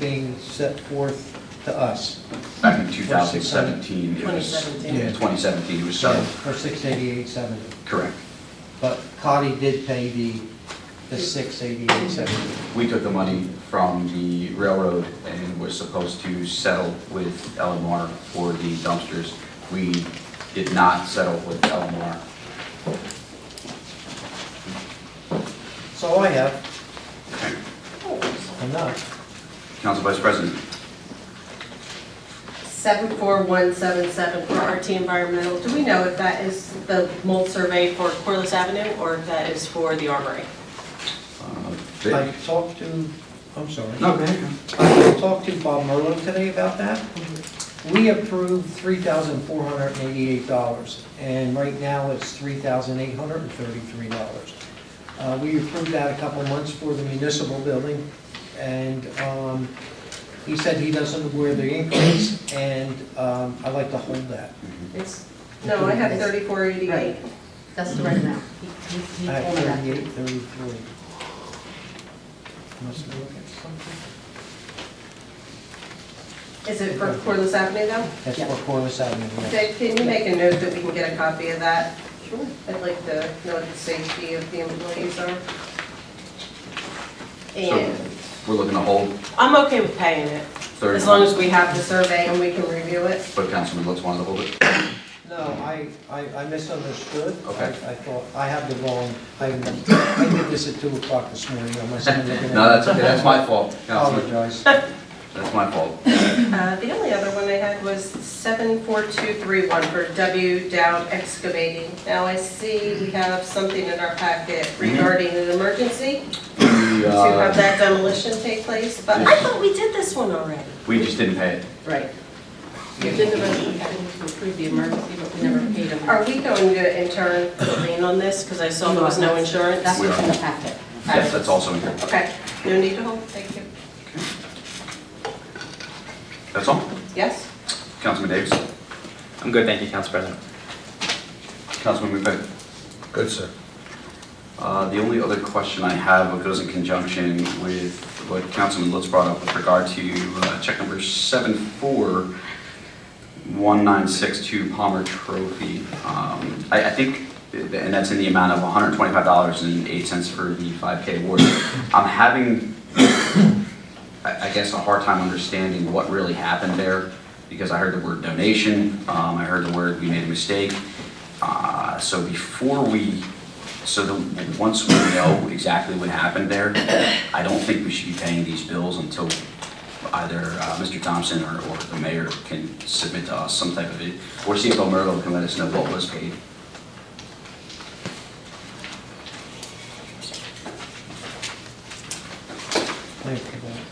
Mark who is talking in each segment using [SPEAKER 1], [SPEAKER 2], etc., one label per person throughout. [SPEAKER 1] being set forth to us.
[SPEAKER 2] back in 2017, it was,
[SPEAKER 3] 2017.
[SPEAKER 1] Yeah.
[SPEAKER 2] 2017, it was
[SPEAKER 1] Yeah,
[SPEAKER 2] so,
[SPEAKER 1] For six eighty-eight seventy.
[SPEAKER 2] correct.
[SPEAKER 1] But Cotty did pay the, the six eighty-eight seventy.
[SPEAKER 2] We took the money from the railroad and was supposed to settle with Elmar for the dumpsters. We did not settle with Elmar.
[SPEAKER 1] That's all I have. Enough.
[SPEAKER 2] Council Vice President,
[SPEAKER 3] 74177 for RT Environmental, do we know if that is the mold survey for Corliss Avenue or if that is for the Armory?
[SPEAKER 2] uh,
[SPEAKER 1] I
[SPEAKER 2] Vic?
[SPEAKER 1] talked to, I'm sorry.
[SPEAKER 2] No, go ahead.
[SPEAKER 1] I talked to Bob Merlo today about that. We approved three thousand four hundred and eighty-eight dollars, and right now it's three thousand eight hundred and thirty-three dollars. Uh, we approved that a couple months for the municipal building, and, um, he said he doesn't know where the increase, and, um, I'd like to hold that.
[SPEAKER 2] Mm-hmm.
[SPEAKER 3] It's, no, I have 3488.
[SPEAKER 4] Right. That's the right amount. He he- he
[SPEAKER 1] At
[SPEAKER 4] told me that.
[SPEAKER 1] thirty-eight, thirty-three. Must be looking at something.
[SPEAKER 3] Is it for Corliss Avenue though?
[SPEAKER 1] That's
[SPEAKER 4] Yeah.
[SPEAKER 1] for Corliss Avenue. yeah.
[SPEAKER 3] Dave, can you make a note that we can get a copy of that? Sure. I'd like to know what the safety of the employees are.
[SPEAKER 2] So,
[SPEAKER 3] And
[SPEAKER 2] we're looking to hold
[SPEAKER 3] I'm okay with paying it,
[SPEAKER 2] third.
[SPEAKER 3] as long as we have the survey and we can review it.
[SPEAKER 2] But Councilman Lutz wanted to hold it.
[SPEAKER 1] No, I, I I misunderstood.
[SPEAKER 2] Okay.
[SPEAKER 1] I I thought, I have the wrong, I I did this at 2 o'clock this morning, I must have been looking at...
[SPEAKER 2] No, that's okay, that's my fault, Councilman,
[SPEAKER 1] Apologize.
[SPEAKER 2] that's my fault.
[SPEAKER 3] Uh, The only other one I had was 74231 for W Dowd Excavating. Now I see we have something in our packet regarding an emergency
[SPEAKER 2] We,
[SPEAKER 3] to
[SPEAKER 2] uh,
[SPEAKER 3] have that demolition take place, but I thought we did this one already.
[SPEAKER 2] we just didn't pay it.
[SPEAKER 4] Right. We did the motion, I think, to approve the emergency, but we never paid him.
[SPEAKER 3] Are we going to in turn lean on this because I saw there was no insurance?
[SPEAKER 4] That's
[SPEAKER 2] We
[SPEAKER 4] what's in
[SPEAKER 2] are.
[SPEAKER 4] the packet.
[SPEAKER 2] Yes, that's also in here.
[SPEAKER 3] Okay, no need to hold, thank you.
[SPEAKER 2] That's all.
[SPEAKER 3] Yes?
[SPEAKER 2] Councilman Davis,
[SPEAKER 5] I'm good, thank you, Council President.
[SPEAKER 2] Councilman McVeigh.
[SPEAKER 6] Good, sir.
[SPEAKER 2] Uh, The only other question I have goes in conjunction with what Councilman Lutz brought up with regard to uh, check number 741962 Palmer Trophy. Um, I I think, and that's in the amount of $125.08 for the 5K award. I'm having, I I guess, a hard time understanding what really happened there because I heard the word donation, um, I heard the word we made a mistake. Uh, So before we, so the, once we know exactly what happened there, I don't think we should be paying these bills until either uh, Mr. Thompson or, or the mayor can submit to us some type of, it or CFO Merlo can let us know what was paid.
[SPEAKER 1] Thank you. Bob.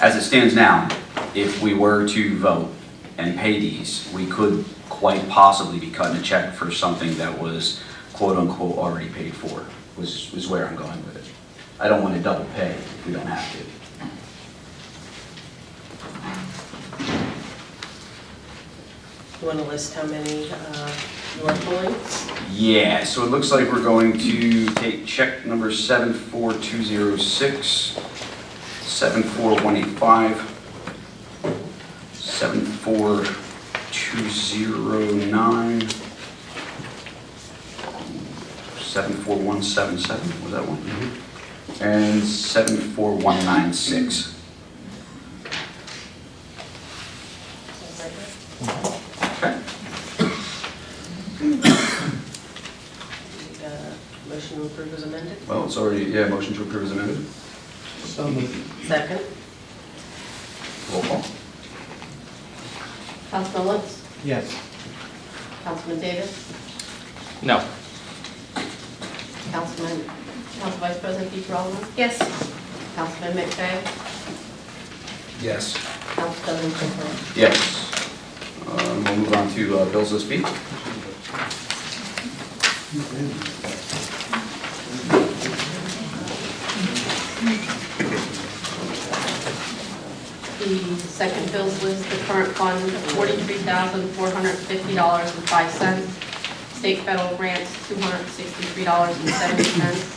[SPEAKER 2] As it stands now, if we were to vote and pay these, we could quite possibly be cutting a check for something that was quote-unquote already paid for, was, was where I'm going with it. I don't want to double pay if we don't have to.
[SPEAKER 3] You want to list how many uh, you are pulling?
[SPEAKER 2] Yeah, so it looks like we're going to take check number 74206, 74185, 74209, 74177, was that one? And 74196. Okay.
[SPEAKER 3] Need a Uh, Motion to approve as amended?
[SPEAKER 2] Well, it's already, yeah, motion to approve is amended.
[SPEAKER 1] So moved.
[SPEAKER 3] Second?
[SPEAKER 2] Roll call.
[SPEAKER 4] Councilman Lutz,
[SPEAKER 1] Yes.
[SPEAKER 4] Councilman Davis,
[SPEAKER 5] No,
[SPEAKER 4] Councilman, Council Vice President Peter Allen,
[SPEAKER 3] Yes.
[SPEAKER 4] Councilman McVeigh,
[SPEAKER 6] Yes.
[SPEAKER 4] Council President Corcoran.
[SPEAKER 2] Yes. Um, We'll move on to uh, bills this week.
[SPEAKER 4] The second bills list, the current fund, forty-three thousand, four hundred and fifty dollars and five cents. State federal grants, two hundred and sixty-three dollars and seventy cents.